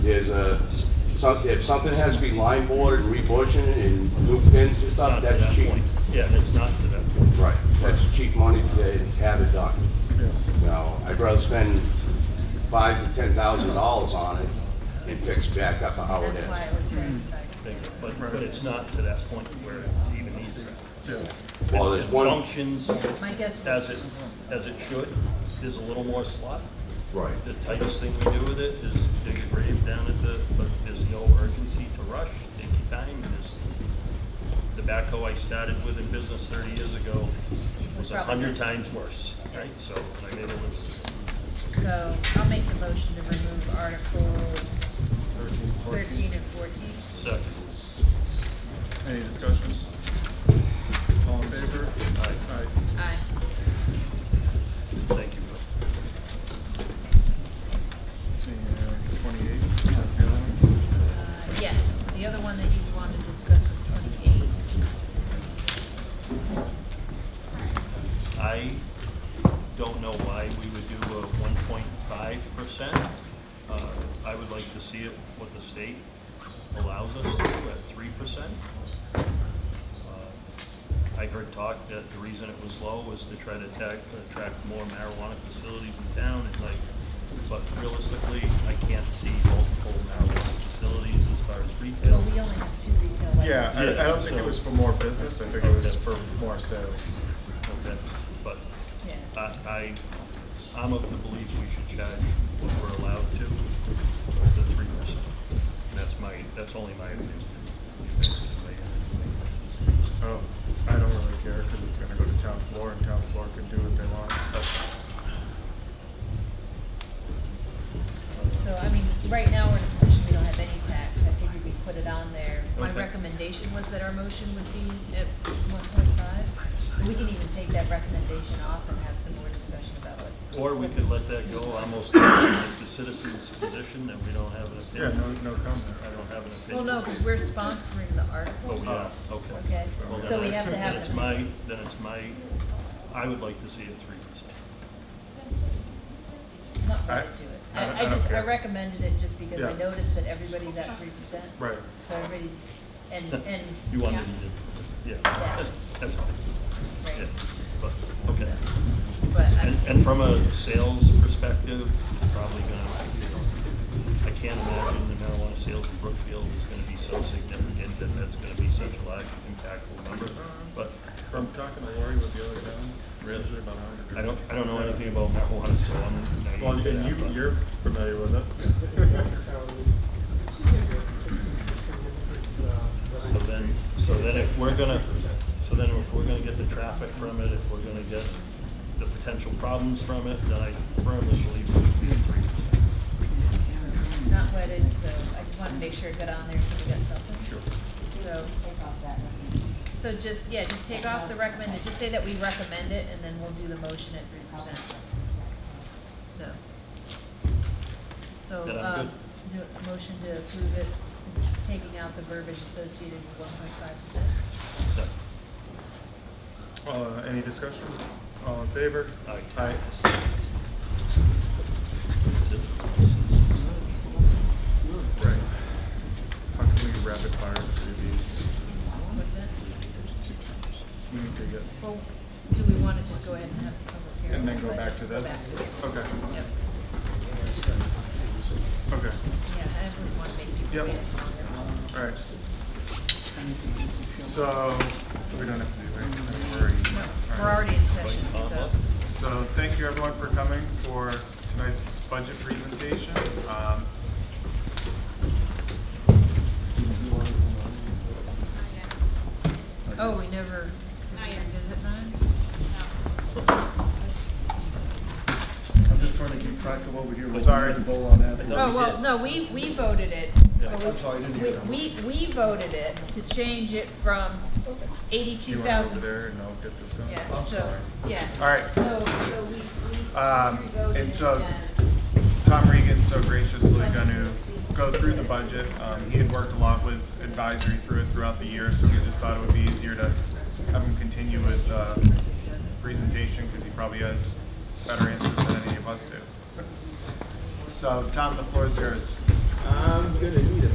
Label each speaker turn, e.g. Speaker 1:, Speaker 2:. Speaker 1: There's a, some- if something has to be line boarded, rebushing and new pins and
Speaker 2: It's not
Speaker 1: stuff,
Speaker 2: to
Speaker 1: that's
Speaker 2: that
Speaker 1: cheap.
Speaker 2: point. Yeah, it's not to that point.
Speaker 1: Right, that's cheap money to have it done. Now, I'd rather spend five to ten thousand dollars on it and fix back up how it
Speaker 3: That's why I
Speaker 1: is.
Speaker 3: was saying,
Speaker 2: Hmm.
Speaker 3: like,
Speaker 2: Bingo. But, but it's not to that point where it even needs that.
Speaker 1: Well,
Speaker 2: It
Speaker 1: there's one,
Speaker 2: Functions
Speaker 3: my guess
Speaker 2: as
Speaker 3: was,
Speaker 2: it, as it should. There's a little more slot.
Speaker 1: right,
Speaker 2: The tightest thing we do with it is dig a grave down at the, but there's no urgency to rush, take your time. There's- The backhoe I started with in business thirty years ago was a hundred times worse, right? So, I mean, it was
Speaker 3: so I'll make the motion to remove Articles thirteen and fourteen.
Speaker 2: second.
Speaker 4: Any discussion? All in favor?
Speaker 2: Aye.
Speaker 4: Aye.
Speaker 3: Aye.
Speaker 2: Thank you, Bill.
Speaker 4: And twenty-eight, is that the other one?
Speaker 3: Uh, yeah, the other one that you wanted to discuss was twenty-eight.
Speaker 2: I don't know why we would do a one point five percent. Uh, I would like to see it, what the state allows us to do at three percent. Uh, I heard talk that the reason it was low was to try to attack, attract more marijuana facilities in town and like, but realistically, I can't see multiple marijuana facilities as far as
Speaker 3: Well,
Speaker 2: retail.
Speaker 3: we only have two retail licenses.
Speaker 4: Yeah, I, I don't think it was for more business, I think it was
Speaker 2: Okay.
Speaker 4: for more sales.
Speaker 2: Okay, But I,
Speaker 3: Yeah.
Speaker 2: I, I'm of the belief we should charge what we're allowed to, the three percent. That's my, that's only my opinion.
Speaker 4: Oh, I don't really care, cause it's gonna go to town floor and town floor can do what they want.
Speaker 3: So, I mean, right now, we're in a position we don't have any tax, I figured we'd put it on there. My
Speaker 2: Okay.
Speaker 3: recommendation was that our motion would be at one point five. We can even take that recommendation off and have some more discussion about it.
Speaker 2: Or we could let that go, almost like the citizen's position, that we don't have an
Speaker 4: Yeah,
Speaker 2: opinion.
Speaker 4: no, no comment.
Speaker 2: I don't have an opinion.
Speaker 3: Well, no, because we're sponsoring the
Speaker 2: Oh,
Speaker 3: article.
Speaker 2: yeah, okay.
Speaker 3: Okay,
Speaker 2: Well, then
Speaker 3: so
Speaker 2: I-
Speaker 3: we have to have
Speaker 2: Then it's
Speaker 3: them.
Speaker 2: my, then it's my, I would like to see it three percent.
Speaker 3: Not
Speaker 4: I-
Speaker 3: right to it.
Speaker 4: I
Speaker 3: I,
Speaker 4: don't- I
Speaker 3: I
Speaker 4: don't
Speaker 3: just, I
Speaker 4: care.
Speaker 3: recommended it just because I
Speaker 4: Yeah.
Speaker 3: noticed that everybody's at three percent.
Speaker 4: Right.
Speaker 3: So everybody's, and, and.
Speaker 2: You want them to, yeah,
Speaker 3: Yeah.
Speaker 2: that's fine, yeah,
Speaker 3: Right.
Speaker 2: but, okay.
Speaker 3: But
Speaker 2: And,
Speaker 3: I,
Speaker 2: and from a sales perspective, probably gonna, you know, I can't imagine the marijuana sales in Brookfield is gonna be so significant that that's gonna be such a large impactful number. But
Speaker 4: From talking to Lori with the other town,
Speaker 2: Really?
Speaker 4: usually about a hundred.
Speaker 2: I don't, I don't know anything about marijuana, so I'm naive
Speaker 4: Well,
Speaker 2: to
Speaker 4: and
Speaker 2: that,
Speaker 4: you,
Speaker 2: but-
Speaker 4: you're familiar with it.
Speaker 2: So then, so then if we're gonna, so then if we're gonna get the traffic from it, if we're gonna get the potential problems from it, then I firmly believe it should be a three percent.
Speaker 3: not wedded, so I just wanted to make sure it got on there so we got something. So. Take off that. So just, yeah, just take off the recommended, just say that we recommend it and then we'll do the motion at three percent. So. So,
Speaker 2: Then I'm
Speaker 3: um,
Speaker 2: good.
Speaker 3: do a motion to approve it, taking out the verbiage associated with one point five percent.
Speaker 2: So,
Speaker 4: Uh, any discussion? All in favor?
Speaker 2: Aye.
Speaker 4: Aye.
Speaker 2: that's it.
Speaker 4: Right. How can we rapid fire through these?
Speaker 3: What's that?
Speaker 4: We need to get,
Speaker 3: Well, do we wanna just go ahead and have the public hearing?
Speaker 4: and then go
Speaker 3: But-
Speaker 4: back to this?
Speaker 3: Go back to it.
Speaker 4: Okay,
Speaker 3: Yep.
Speaker 4: okay,
Speaker 3: Yeah, I just wouldn't wanna make people
Speaker 4: Yep.
Speaker 3: wait longer.
Speaker 4: all right. So, we don't have to do anything, we're already.
Speaker 3: No,
Speaker 4: all
Speaker 3: We're
Speaker 4: right.
Speaker 3: already in session,
Speaker 2: Like, uh,
Speaker 3: so.
Speaker 4: So thank you everyone for coming for tonight's budget presentation. Um,
Speaker 3: Oh, we never, did
Speaker 5: Not
Speaker 3: we
Speaker 5: yet.
Speaker 3: revisit nine?
Speaker 6: I'm just trying to keep track of what we hear.
Speaker 4: Sorry.
Speaker 6: Bull on that.
Speaker 2: No,
Speaker 3: Oh,
Speaker 2: we
Speaker 3: well,
Speaker 2: did.
Speaker 3: no, we, we voted it.
Speaker 2: Yeah.
Speaker 6: I'm sorry, I didn't hear that.
Speaker 3: We, we, we voted it to change it from
Speaker 4: You
Speaker 3: eighty-two
Speaker 4: want to go over
Speaker 3: thousand.
Speaker 4: there and I'll get this going?
Speaker 3: Yeah,
Speaker 6: I'm
Speaker 3: so,
Speaker 6: sorry.
Speaker 3: yeah.
Speaker 4: All right,
Speaker 3: So, so we, we.
Speaker 4: Um,
Speaker 3: revoted
Speaker 4: and
Speaker 3: it
Speaker 4: so-
Speaker 3: again.
Speaker 4: Tom Regan's so graciously going to go through the budget. Um, he had worked a lot with advisory through it throughout the year, so we just thought it would be easier to have him continue with uh, presentation because he probably has better answers than any of us do. So, Tom, the floor is yours. Um,